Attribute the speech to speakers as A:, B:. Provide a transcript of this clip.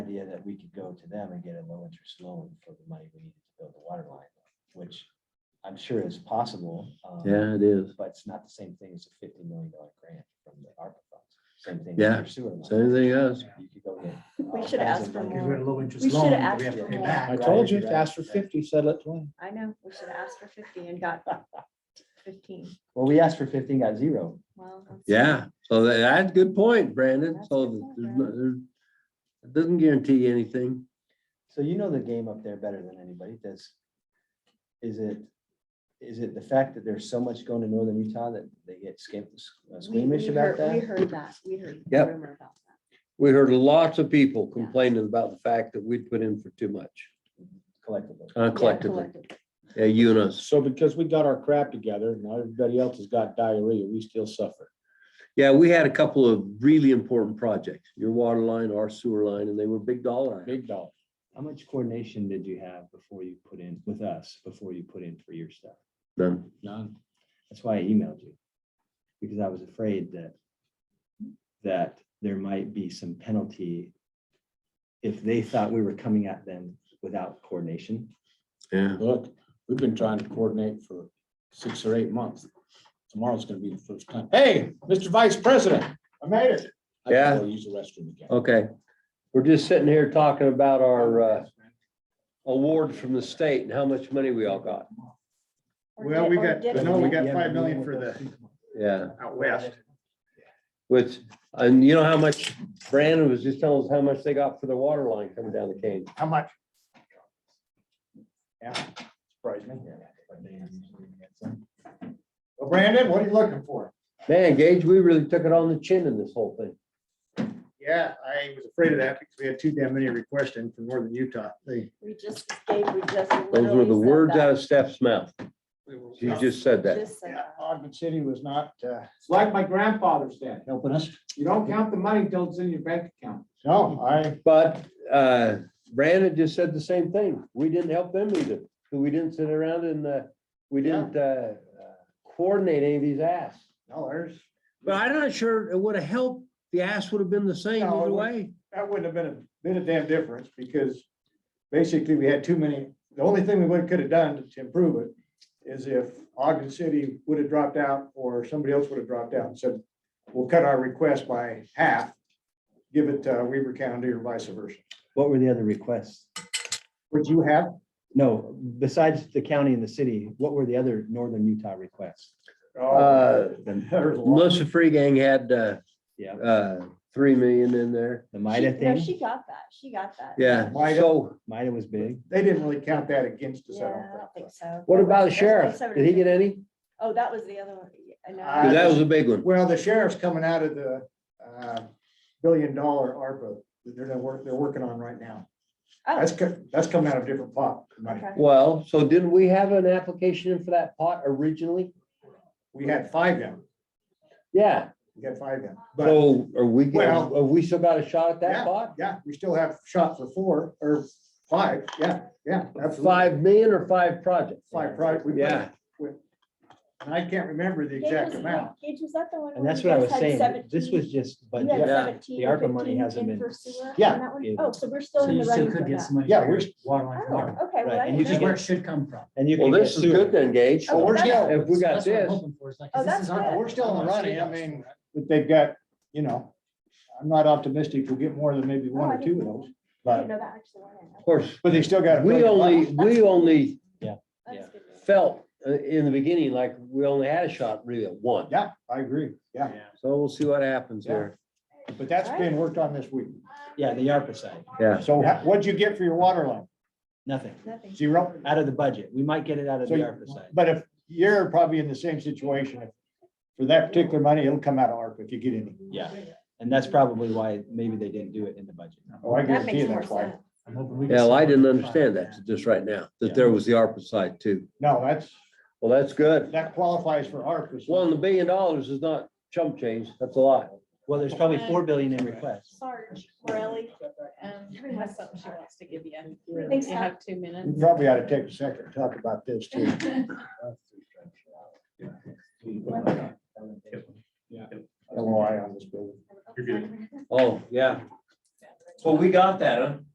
A: idea that we could go to them and get a low interest loan for the money we needed to build the water line, which I'm sure is possible. um,
B: Yeah, it is.
A: But it's not the same thing as a fifty million dollar grant from the ARPA funds. Same thing. with
B: Yeah,
A: your sewer line.
B: Same thing else.
A: You could go get. uh,
C: We
A: all
C: should
A: kinds
C: ask
A: of
C: for
A: money.
D: Because
C: more.
D: we had a low interest
C: We should
D: loan,
C: ask
D: that we have to
C: for
D: pay
C: more.
D: back.
E: I
A: Right,
E: told you,
A: right,
E: ask for
A: right.
E: fifty, settle it twenty.
C: I know, we should have asked for fifty and got fifteen.
A: Well, we asked for fifteen, got zero.
C: Well. that's-
B: Yeah, so tha- that's a good point, Brandon.
C: That's a
B: So
C: good
B: th-
C: point,
B: there's no-
C: Brandon.
B: there's- it doesn't guarantee anything.
A: So you know the game up there better than anybody does. Is it, is it the fact that there's so much going to northern Utah that they get skim- uh,
C: We-
A: squeamish
C: we
A: about
C: heard- We
A: that?
C: heard that, we heard. the
B: Yep.
C: rumor about that.
B: We heard lots of people
C: Yeah.
B: complaining about the fact that we'd put in for too much
A: Collectively.
B: uh,
C: Yeah,
B: collectively, yeah, you and us.
E: So because we got our crap together, now everybody else has got diarrhea, we still suffer.
B: Yeah, we had a couple of really important projects, your water line, our sewer line, and they were big dollar.
E: Big dog.
F: How much coordination did you have before you put in with us, before you put in for your stuff?
B: None.
F: None. That's why I emailed you. Because I was afraid that that there might be some penalty if they thought we were coming at them without coordination.
B: Yeah,
D: Look, we've been trying to coordinate for six or eight months. Tomorrow's gonna be the first time. Hey, Mr. Vice President, I made it. I
B: Yeah.
D: can go Use the restroom again.
B: okay. We're just sitting here talking about our uh, awards from the state and how much money we all got.
C: Or
G: Well,
C: did-
G: we
C: or
G: got,
C: did-
G: no, we got
A: Yeah,
G: five
A: but
G: million
A: what
G: for
A: was-
G: the
B: Yeah,
G: out west.
B: which, and you know how much Brandon was just telling us how much they got for the water line coming down the cane.
G: How much? Yeah, surprised me. Well, Brandon, what are you looking for?
B: Man, Gage, we really took it on the chin in this whole thing.
G: Yeah, I was afraid of that because we had too damn many requests in from northern Utah. They.
C: We just gave, we just.
B: Those were
C: literally
B: the
C: said
B: words
C: that.
B: out of Steph's mouth.
G: we were-
B: She just said that.
C: Just said
G: Yeah,
C: that.
G: Ogden City was not, uh,
H: It's like my grandfather's dad.
D: Helping us.
H: You don't count the money till it's in your bank account.
G: no, I,
B: But uh, Brandon just said the same thing. We didn't help them either. We didn't sit around and uh, we didn't uh, coordinate any of these asks.
G: no, there's,
B: But I'm not sure it would have helped. The ask would have been the same
G: No, it
B: either
G: would-
B: way.
G: that wouldn't have been a, been a damn difference because basically we had too many, the only thing we would, could have done to improve it is if Ogden City would have dropped out or somebody else would have dropped out and said, we'll cut our request by half, give it to Weaver County or vice versa.
F: What were the other requests?
G: Would you have?
F: No, besides the county and the city, what were the other northern Utah requests?
G: Oh,
B: Uh,
F: The
G: There's a lot.
B: Melissa Free Gang had uh,
F: Yeah.
B: uh, three million in there.
F: the
C: She-
F: MIDA
C: No,
F: thing,
C: she got that, she got that.
B: Yeah,
G: Might have-
B: so
F: MIDA was big.
G: They didn't really count that against us. I
C: Yeah,
G: don't
C: I don't
G: think.
C: think so.
B: what
C: That
B: about the
C: was-
B: sheriff?
C: that's like
B: Did he get any?
C: Oh, that was the other one. I know.
G: Uh,
B: 'Cause that was a big one.
G: Well, the sheriff's coming out of the uh, billion dollar ARPA that they're, work- they're working on right now.
C: Oh.
G: That's, co- that's coming out of different pot. money.
C: Okay.
B: Well, so didn't we have an application in for that pot originally?
G: We had five them,
B: Yeah,
G: we had five them, but
B: so are we, have
G: Well-
B: we still got a shot at that pot?
G: yeah, we still have shot for four or five, yeah, yeah. absolutely.
B: Five million or five projects?
G: Five, right? we put-
B: Yeah,
G: And I can't remember the
C: Gage,
G: exact
C: was-
G: amount.
C: Gage, was that the one?
F: And
C: where
F: that's
C: you
F: what I
C: guys
F: was
C: had
F: saying. This
C: 17?
F: was just
C: You
F: budget.
C: had
B: Yeah.
C: 17
F: The
C: or
F: ARPA money
C: 15
F: hasn't been-
C: in for sewer on
G: Yeah.
C: that one?
F: Yeah.
C: Oh, so we're still in the running for that.
F: money.
G: Yeah, we're,
F: Water
C: Oh, okay. well, I
F: Right, and
C: didn't
F: you just
C: know
F: where
C: that.
F: it should come from. And you
B: well,
F: can get
B: this is good
F: sewer.
B: then, Gage.
C: Oh,
G: we're still-
B: If we got
F: That's what I'm
B: this,
F: hoping for, is like,
C: Oh,
F: 'cause this
C: that's
F: is our-
C: good.
G: we're still in the
F: wanna see
G: running, I
F: us.
G: mean, but they've got, you know, I'm not optimistic we'll get more than maybe one
C: Oh, I
G: or two
C: didn't
G: of
C: know
G: those,
C: that. I didn't
G: but,
C: know that actually went in.
B: of course,
G: but they still got. a
B: we
G: billion
B: only,
G: bucks.
B: we only
C: That's good.
B: felt uh, in the beginning like we only had a shot really at one.
G: Yeah, I agree, yeah.
B: So we'll see what happens here.
G: But that's being worked on this week.
F: Yeah, the ARPA side,
G: So ha- what'd you get for your water line?
F: nothing,
C: Nothing.
G: Zero?
F: out of the budget. We might get it out of
G: So
F: the
G: you-
F: ARPA side.
G: But if, you're probably in the same situation. If For that particular money, it'll come out of ARPA if you get any.
F: Yeah, and that's probably why maybe they didn't do it in the budget.
G: Oh, I
C: That
G: guarantee
C: makes
G: you
C: more
G: that's why.
C: sense.
F: I'm hoping we can
B: Yeah, well, I
F: sell it
B: didn't
F: for
B: understand
F: five.
B: that just right now,
F: Yeah.
B: that there was the ARPA side too.
G: No, that's,
B: Well, that's good.
G: that qualifies for ARPA. so-
B: Well, and the billion dollars is not chump change. That's a lot.
F: Well, there's probably four billion in requests.
I: Sarge Morelli, um, has something she wants to give you.
C: Thanks,
I: You
C: Todd.
I: have two minutes.
G: We probably ought to take a second and talk about this too. LOI on this building.
B: Oh, yeah. Well, we got that, huh?